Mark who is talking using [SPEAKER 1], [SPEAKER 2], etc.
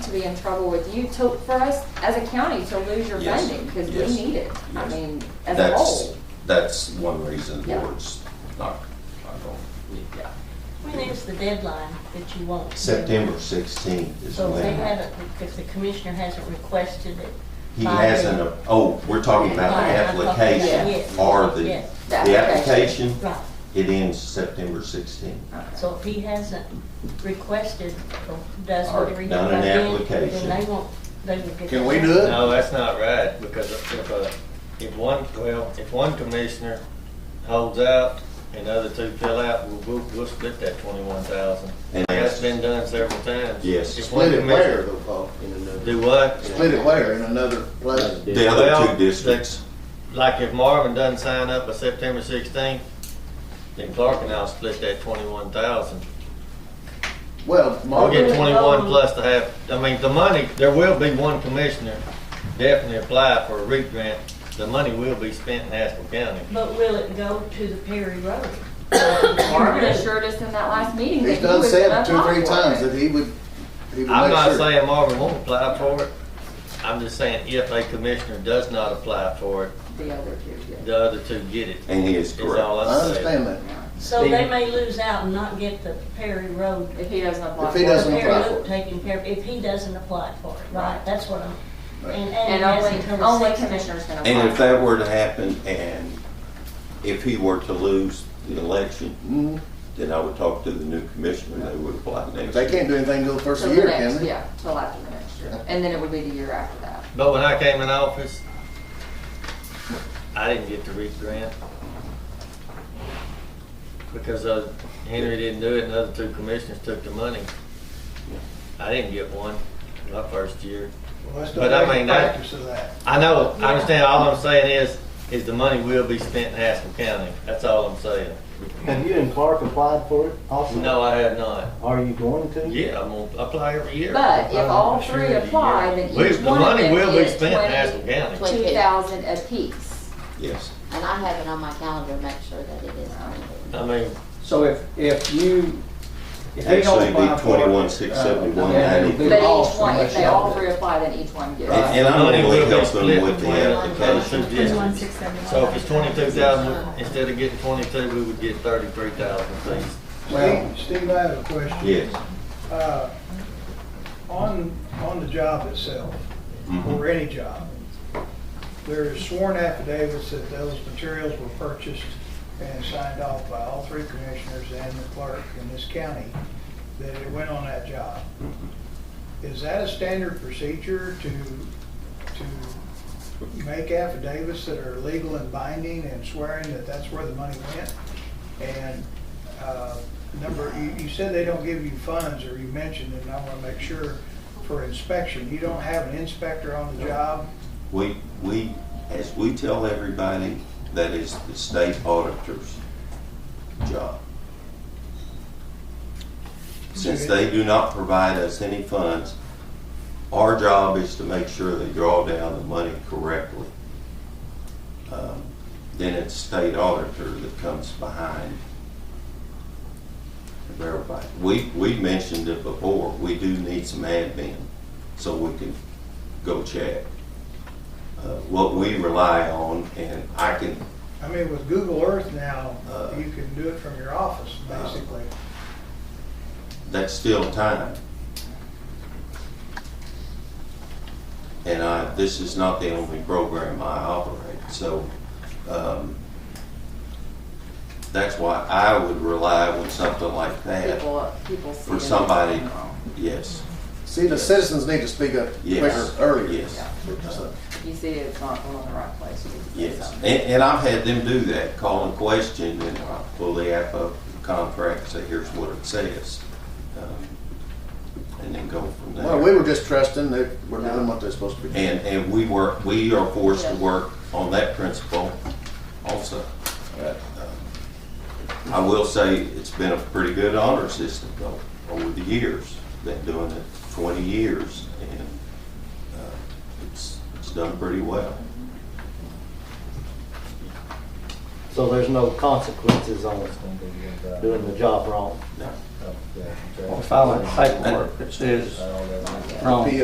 [SPEAKER 1] to be in trouble with you to, for us as a county to lose your
[SPEAKER 2] Yes.
[SPEAKER 1] funding, because we
[SPEAKER 2] Yes.
[SPEAKER 1] need it. I
[SPEAKER 2] Yes.
[SPEAKER 1] mean, as a
[SPEAKER 2] That's,
[SPEAKER 1] whole.
[SPEAKER 2] that's one reason the
[SPEAKER 1] Yeah.
[SPEAKER 2] board's not, not going.
[SPEAKER 1] Yeah.
[SPEAKER 3] When is the deadline that you want?
[SPEAKER 4] September 16th is
[SPEAKER 3] So if they
[SPEAKER 4] when
[SPEAKER 3] haven't, if the commissioner hasn't requested it.
[SPEAKER 4] he
[SPEAKER 3] by
[SPEAKER 4] hasn't,
[SPEAKER 3] then-
[SPEAKER 4] a- oh, we're talking about the
[SPEAKER 3] Right, I'm talking about-
[SPEAKER 4] application
[SPEAKER 3] yes,
[SPEAKER 4] or the,
[SPEAKER 3] yes.
[SPEAKER 4] the application,
[SPEAKER 3] Right,
[SPEAKER 4] it ends September 16th.
[SPEAKER 3] so if he hasn't requested or does
[SPEAKER 4] Or
[SPEAKER 3] whatever. he-
[SPEAKER 4] done an
[SPEAKER 3] by then,
[SPEAKER 4] application.
[SPEAKER 3] Then they won't, they will get.
[SPEAKER 5] Can we do it?
[SPEAKER 6] No, that's not right, because if, uh, if one, well, if one commissioner holds out and the other two fill out, we'll, we'll, we'll split that twenty-one thousand.
[SPEAKER 4] And that's-
[SPEAKER 6] That's been done several times.
[SPEAKER 4] Yes.
[SPEAKER 6] If one
[SPEAKER 5] Split it where
[SPEAKER 6] commissioner
[SPEAKER 5] though, Paul? In another.
[SPEAKER 6] Do what?
[SPEAKER 5] Split it where? In another place?
[SPEAKER 4] The
[SPEAKER 6] Well,
[SPEAKER 4] other two
[SPEAKER 6] the-
[SPEAKER 4] districts,
[SPEAKER 6] Like if Marvin doesn't sign up by September sixteenth, then Clark and I'll split that twenty-one thousand.
[SPEAKER 5] Well,
[SPEAKER 6] I'll
[SPEAKER 5] Marvin,
[SPEAKER 6] get
[SPEAKER 3] Okay.
[SPEAKER 6] twenty-one plus the half, I mean, the money, there will be one commissioner definitely apply for a REAP grant. The money will be spent in Haskell County.
[SPEAKER 3] But will it go to the Perry Road?
[SPEAKER 1] Marvin assured us in that last meeting that
[SPEAKER 5] he's
[SPEAKER 1] he
[SPEAKER 5] done
[SPEAKER 1] was
[SPEAKER 5] said
[SPEAKER 1] gonna
[SPEAKER 5] it two or three
[SPEAKER 1] apply
[SPEAKER 5] times
[SPEAKER 1] for it.
[SPEAKER 5] that he would, he would make sure.
[SPEAKER 6] I'm not saying Marvin won't apply for it. I'm just saying if a commissioner does not apply for it,
[SPEAKER 1] The other two, yeah.
[SPEAKER 6] the other two get it,
[SPEAKER 4] and he is
[SPEAKER 6] is
[SPEAKER 4] correct.
[SPEAKER 6] all
[SPEAKER 5] I
[SPEAKER 6] I'm saying.
[SPEAKER 5] understand that.
[SPEAKER 3] So they may lose out and not get the Perry Road.
[SPEAKER 1] If he doesn't apply
[SPEAKER 5] If
[SPEAKER 1] for
[SPEAKER 5] he
[SPEAKER 1] it.
[SPEAKER 5] doesn't-
[SPEAKER 3] Perry
[SPEAKER 5] apply for
[SPEAKER 3] Road
[SPEAKER 5] it.
[SPEAKER 3] taken care of, if he doesn't apply for it, right, that's what I'm,
[SPEAKER 5] Right.
[SPEAKER 3] and,
[SPEAKER 1] And
[SPEAKER 3] and
[SPEAKER 1] only,
[SPEAKER 3] that's until the
[SPEAKER 1] only
[SPEAKER 3] 16th.
[SPEAKER 1] commissioners can apply.
[SPEAKER 4] And if
[SPEAKER 1] for it.
[SPEAKER 4] that were to happen and if he were to lose the election,
[SPEAKER 5] Mhm.
[SPEAKER 4] then I would talk to the new commissioner, they would apply next
[SPEAKER 5] They
[SPEAKER 4] year.
[SPEAKER 5] can't do anything till the first
[SPEAKER 1] Till
[SPEAKER 5] of
[SPEAKER 1] the
[SPEAKER 5] the year,
[SPEAKER 1] next-
[SPEAKER 5] can they?
[SPEAKER 1] Yeah, till after the next year. And then it would be the year after that.
[SPEAKER 6] But when I came in office, I didn't get the REAP grant. Because uh, Henry didn't do it and the other two commissioners took the money. I didn't get one my first year.
[SPEAKER 7] Well, that's
[SPEAKER 6] But I
[SPEAKER 7] the
[SPEAKER 6] mean, that-
[SPEAKER 7] practice of that.
[SPEAKER 6] I know, I understand, all I'm saying is, is the money will be spent in Haskell County. That's all I'm saying.
[SPEAKER 8] Have you and Clark applied for it also?
[SPEAKER 6] No, I have not.
[SPEAKER 8] Are you going to?
[SPEAKER 6] Yeah, I'm gonna apply every year.
[SPEAKER 1] But if all
[SPEAKER 8] Sure,
[SPEAKER 1] three
[SPEAKER 8] yeah.
[SPEAKER 1] apply, then
[SPEAKER 6] We-
[SPEAKER 1] each
[SPEAKER 6] the
[SPEAKER 1] one of
[SPEAKER 6] money
[SPEAKER 1] them
[SPEAKER 6] will be
[SPEAKER 1] is
[SPEAKER 6] spent in Haskell
[SPEAKER 1] twenty,
[SPEAKER 6] County.
[SPEAKER 1] twenty thousand apiece.
[SPEAKER 4] Yes.
[SPEAKER 9] And I have it on my calendar, to make sure that it is. printed.
[SPEAKER 6] I mean,
[SPEAKER 10] So if, if you, if they
[SPEAKER 4] Actually,
[SPEAKER 10] don't
[SPEAKER 4] it'd be
[SPEAKER 10] apply for it.
[SPEAKER 4] twenty-one, six seventy-one, ninety.
[SPEAKER 1] But each
[SPEAKER 10] uh, lost
[SPEAKER 1] one, if
[SPEAKER 10] unless
[SPEAKER 1] they
[SPEAKER 10] y'all
[SPEAKER 1] all
[SPEAKER 10] did.
[SPEAKER 1] three apply, then each one gets.
[SPEAKER 4] And and I
[SPEAKER 6] Money
[SPEAKER 4] don't
[SPEAKER 6] will
[SPEAKER 4] believe
[SPEAKER 6] be
[SPEAKER 4] help
[SPEAKER 6] split
[SPEAKER 4] them with the
[SPEAKER 6] between the
[SPEAKER 4] application.
[SPEAKER 6] two districts. So if it's twenty-two thousand, instead of getting twenty-two, we would get thirty-three thousand, please.
[SPEAKER 7] Steve, Steve, I have a question.
[SPEAKER 4] Yes.
[SPEAKER 7] Uh, On, on the job itself,
[SPEAKER 6] Mm-hmm.
[SPEAKER 7] or any job, there is sworn affidavits that those materials were purchased and signed off by all three commissioners and the clerk in this county that it went on that job.
[SPEAKER 6] Mm-hmm.
[SPEAKER 7] Is that a standard procedure to, to make affidavits that are legal and binding and swearing that that's where the money went? And uh, number, you, you said they don't give you funds, or you mentioned, and I want to make sure, for inspection. You don't have an inspector on the job?
[SPEAKER 4] We, we, as we tell everybody, that is the state auditor's job. Since they do not provide us any funds, our job is to make sure they draw down the money correctly. Um, Then it's state auditor that comes behind to verify. We, we mentioned it before, we do need some admin, so we can go check uh, what we rely on, and I can,
[SPEAKER 7] I mean, with Google Earth now,
[SPEAKER 4] Uh.
[SPEAKER 7] you can do it from your office,
[SPEAKER 4] Uh.
[SPEAKER 7] basically.
[SPEAKER 4] that's still time. And I, this is not the only program I operate, so, um, that's why I would rely on something like that.
[SPEAKER 1] People, people see.
[SPEAKER 4] For
[SPEAKER 1] it.
[SPEAKER 4] somebody- Yes,
[SPEAKER 5] See, the citizens need to speak up quicker,
[SPEAKER 4] yes.
[SPEAKER 5] earlier.
[SPEAKER 4] Yes.
[SPEAKER 5] So,
[SPEAKER 1] You see it's not going in the right place. you can say
[SPEAKER 4] Yes, and,
[SPEAKER 1] something.
[SPEAKER 4] and I've had them do that, call and question, and I pull the app up, the contract, say, here's what it says. um, And then go from there.
[SPEAKER 5] Well, we were just trusting that we're doing what they're supposed to be doing.
[SPEAKER 4] And, and we work, we are forced to
[SPEAKER 1] Yes.
[SPEAKER 4] work on that principle also. um, I will say, it's been a pretty good honor system though, over the years, been doing it twenty years, and, uh, it's, it's done pretty well.
[SPEAKER 8] So there's no consequences on doing the job wrong?
[SPEAKER 4] Now,
[SPEAKER 8] Okay.
[SPEAKER 10] Or filing paperwork that says wrong.